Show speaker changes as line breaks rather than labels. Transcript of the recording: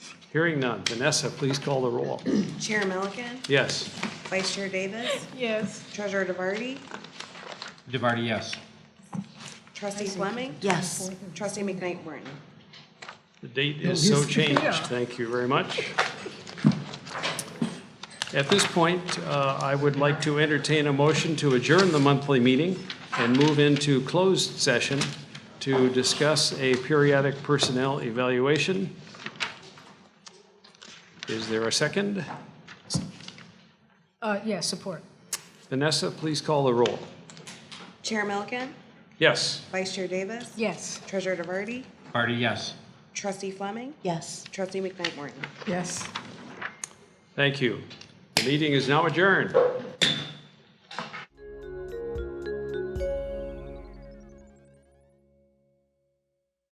Hearing none. Vanessa, please call the roll.
Chair Milliken,
Yes.
Vice Chair Davis,
Yes.
Treasurer DeVarty,
DeVarty, yes.
Trustee Fleming,
Yes.
Trustee McKnight Morton.
The date is so changed. Thank you very much. At this point, uh, I would like to entertain a motion to adjourn the monthly meeting and move into closed session to discuss a periodic personnel evaluation. Is there a second?
Uh, yeah, support.
Vanessa, please call the roll.
Chair Milliken,
Yes.
Vice Chair Davis,
Yes.
Treasurer DeVarty,
DeVarty, yes.
Trustee Fleming,
Yes.
Trustee McKnight Morton.
Yes.
Thank you. The meeting is now adjourned.